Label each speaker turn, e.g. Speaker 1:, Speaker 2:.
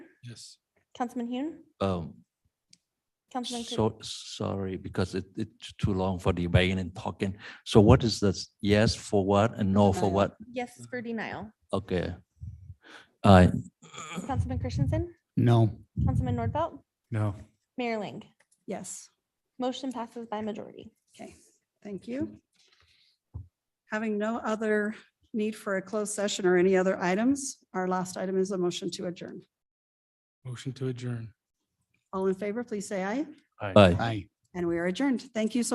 Speaker 1: Yes.
Speaker 2: Councilman Hune,
Speaker 3: Um,
Speaker 2: Councilman. Creed?
Speaker 3: so, sorry, because it, it's too long for debating and talking. So what is this? Yes for what and no for
Speaker 1: Denial.
Speaker 3: what?
Speaker 2: Yes, for denial.
Speaker 3: Okay. I,
Speaker 2: Councilman Christensen,
Speaker 4: No.
Speaker 2: Councilman Nordfelt,
Speaker 1: No.
Speaker 2: Mayor Ling.
Speaker 5: Yes.
Speaker 2: Motion passes by majority.
Speaker 5: Okay, thank you. Having no other need for a closed session or any other items, our last item is a motion to adjourn.
Speaker 1: Motion to adjourn.
Speaker 5: All in favor, please say aye,
Speaker 3: I.
Speaker 4: Aye.
Speaker 5: and we are adjourned. Thank you so